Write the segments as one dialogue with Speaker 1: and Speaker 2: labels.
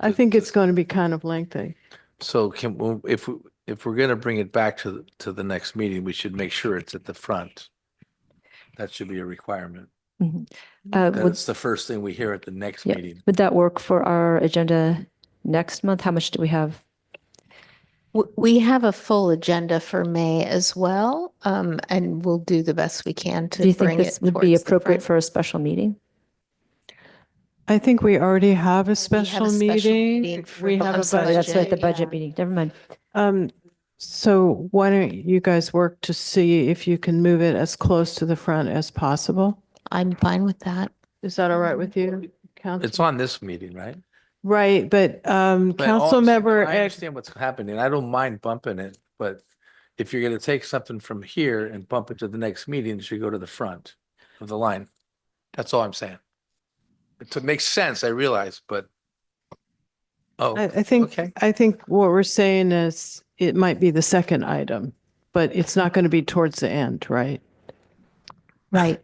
Speaker 1: I think it's going to be kind of lengthy.
Speaker 2: So can, we- if, we- if we're going to bring it back to, the- to the next meeting, we should make sure it's at the front. That should be a requirement.
Speaker 3: Uh, would,
Speaker 2: That's the first thing we hear at the next
Speaker 3: Yeah.
Speaker 2: meeting.
Speaker 3: would that work for our agenda next month? How much do we have?
Speaker 4: W- We have a full agenda for May as well, um, and we'll do the best we can to
Speaker 3: Do you think
Speaker 4: bring
Speaker 3: this
Speaker 4: it
Speaker 3: would be
Speaker 4: towards the
Speaker 3: appropriate
Speaker 4: front.
Speaker 3: for a special meeting?
Speaker 1: I think we already have a
Speaker 4: have a
Speaker 1: special
Speaker 4: special
Speaker 1: meeting.
Speaker 4: meeting for
Speaker 1: We
Speaker 4: bu-
Speaker 1: have
Speaker 4: I'm
Speaker 1: a
Speaker 4: sorry,
Speaker 3: Oh,
Speaker 1: budget.
Speaker 3: That's right, the
Speaker 4: Budget,
Speaker 3: budget
Speaker 4: yeah.
Speaker 3: meeting. Never mind.
Speaker 1: Um, so why don't you guys work to see if you can move it as close to the front as possible?
Speaker 4: I'm fine with that.
Speaker 1: Is that all right with you,
Speaker 2: It's
Speaker 1: council?
Speaker 2: on this meeting, right?
Speaker 1: Right, but, um,
Speaker 2: But all I'm
Speaker 1: council
Speaker 2: saying-
Speaker 1: member,
Speaker 2: I
Speaker 1: Ed-
Speaker 2: understand what's happening. I don't mind bumping it, but if you're going to take something from here and bump it to the next meeting, it should go to the front of the line. That's all I'm saying. It makes sense, I realize, but. Oh,
Speaker 1: I, I think,
Speaker 2: okay.
Speaker 1: I think what we're saying is it might be the second item, but it's not going to be towards the end, right?
Speaker 4: Right.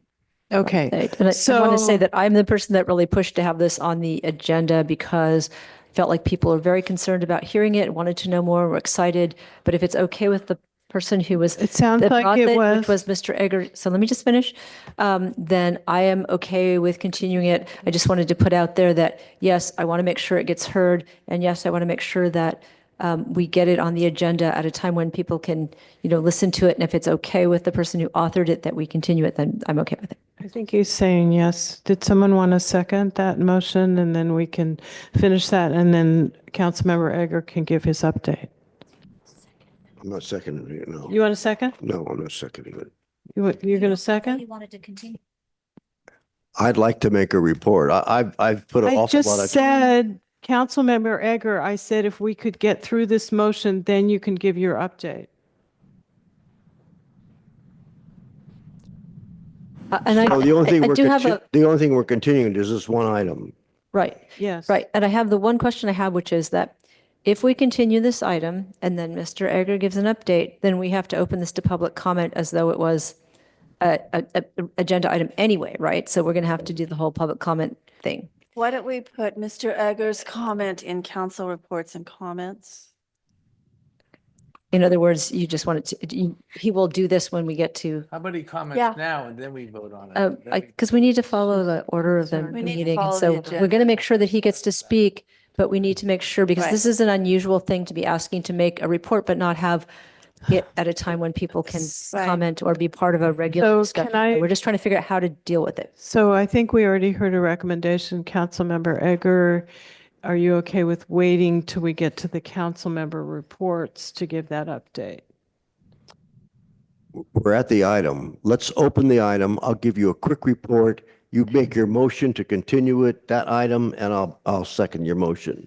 Speaker 1: Okay.
Speaker 3: Right. And I want to say
Speaker 1: So-
Speaker 3: that I'm the person that really pushed to have this on the agenda because I felt like people are very concerned about hearing it, wanted to know more, were excited. But if it's okay with the person who was
Speaker 1: It sounds
Speaker 3: that brought
Speaker 1: like it
Speaker 3: it, which
Speaker 1: was,
Speaker 3: was Mr. Egger. So let me just finish. Um, Then I am okay with continuing it. I just wanted to put out there that, yes, I want to make sure it gets heard. And yes, I want to make sure that um, we get it on the agenda at a time when people can, you know, listen to it. And if it's okay with the person who authored it, that we continue it, then I'm okay with it.
Speaker 1: I think he's saying yes. Did someone want to second that motion? And then we can finish that and then Councilmember Egger can give his update.
Speaker 5: I'm not seconding it, no.
Speaker 1: You want a second?
Speaker 5: No, I'm not seconding it.
Speaker 1: You, wa- you're going to second?
Speaker 6: wanted to continue.
Speaker 5: I'd like to make a report. I, I've, I've put an
Speaker 1: I
Speaker 5: awful lot
Speaker 1: just
Speaker 5: of,
Speaker 1: said, Councilmember Egger, I said if we could get through this motion, then you can give your update.
Speaker 3: Uh, And I,
Speaker 5: so the only
Speaker 3: I
Speaker 5: thing
Speaker 3: I
Speaker 5: we're,
Speaker 3: do have
Speaker 5: conti-
Speaker 3: a,
Speaker 5: the only thing we're continuing is this one item.
Speaker 3: right.
Speaker 1: Yes.
Speaker 3: Right, and I have the one question I have, which is that if we continue this item and then Mr. Egger gives an update, then we have to open this to public comment as though it was a, a, a- agenda item anyway, right? So we're going to have to do the whole public comment thing.
Speaker 7: Why don't we put Mr. Egger's comment in council reports and comments?
Speaker 3: In other words, you just wanted to, you- he will do this when we get to,
Speaker 2: How about he
Speaker 7: Yeah.
Speaker 2: comments now and then we vote on it?
Speaker 3: uh,
Speaker 2: That'd
Speaker 3: I,
Speaker 2: be-
Speaker 3: because we need to follow the order of the
Speaker 1: Sorry.
Speaker 7: We need to
Speaker 3: meeting. and
Speaker 7: follow the
Speaker 3: So we're
Speaker 7: agenda.
Speaker 3: going to make sure that he gets to speak, but we need to make sure, because
Speaker 7: Right.
Speaker 3: this is an unusual thing to be asking to make a report, but not have it at a time when people can
Speaker 7: Right.
Speaker 3: comment or be part of a regular
Speaker 1: So
Speaker 3: discussion.
Speaker 1: can I-
Speaker 3: So We're just trying to figure out how to deal with it.
Speaker 1: So I think we already heard a recommendation, Councilmember Egger. Are you okay with waiting till we get to the council member reports to give that update?
Speaker 5: We're at the item. Let's open the item. I'll give you a quick report. You make your motion to continue it, that item, and I'll, I'll second your motion.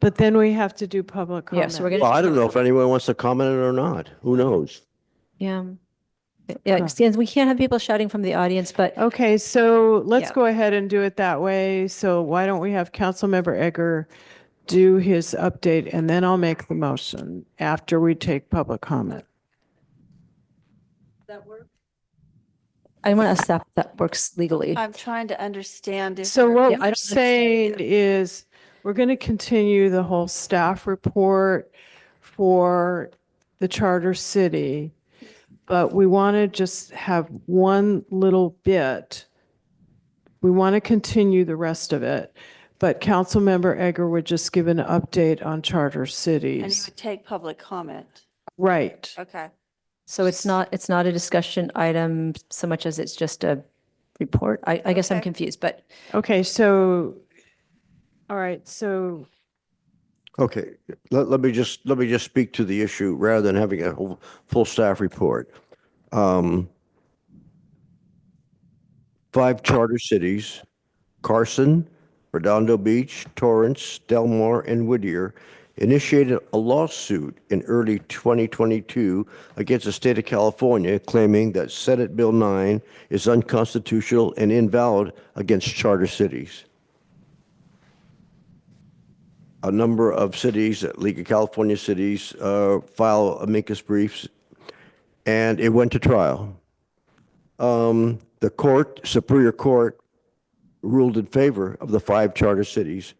Speaker 1: But then we have to do public
Speaker 3: Yeah,
Speaker 1: comment.
Speaker 3: so we're going
Speaker 5: Well,
Speaker 3: to,
Speaker 5: I don't know if anyone wants to comment on it or not. Who knows?
Speaker 3: yeah. Yeah, excuse- we can't have people shouting from the audience, but
Speaker 1: Okay, so let's
Speaker 3: Yeah.
Speaker 1: go ahead and do it that way. So why don't we have Councilmember Egger do his update and then I'll make the motion after we take public comment.
Speaker 3: I want to ask that, that works legally.
Speaker 7: I'm trying to understand if.
Speaker 1: So
Speaker 7: we're-
Speaker 1: what
Speaker 3: Yeah, I
Speaker 1: we're
Speaker 3: don't
Speaker 1: saying is, we're going to continue the whole staff report for the charter city, but we want to just have one little bit. We want to continue the rest of it, but Councilmember Egger would just give an update on charter
Speaker 7: And you
Speaker 1: cities.
Speaker 7: would take public comment.
Speaker 1: Right.
Speaker 7: Okay.
Speaker 3: So it's not, it's not a discussion item so much as it's just a report. I, I guess I'm
Speaker 7: Okay.
Speaker 3: confused, but
Speaker 1: Okay, so, all right, so
Speaker 5: Okay, let, let me just, let me just speak to the issue rather than having a whole, full staff report. Um, Five charter cities, Carson, Redondo Beach, Torrance, Del Mar, and Whittier initiated a lawsuit in early 2022 against the state of California claiming that Senate Bill 9 is unconstitutional and invalid against charter cities a number of cities, League of California cities, uh, file amicus briefs, and it went to trial. Um, The court, Superior Court, ruled in favor of the five charter cities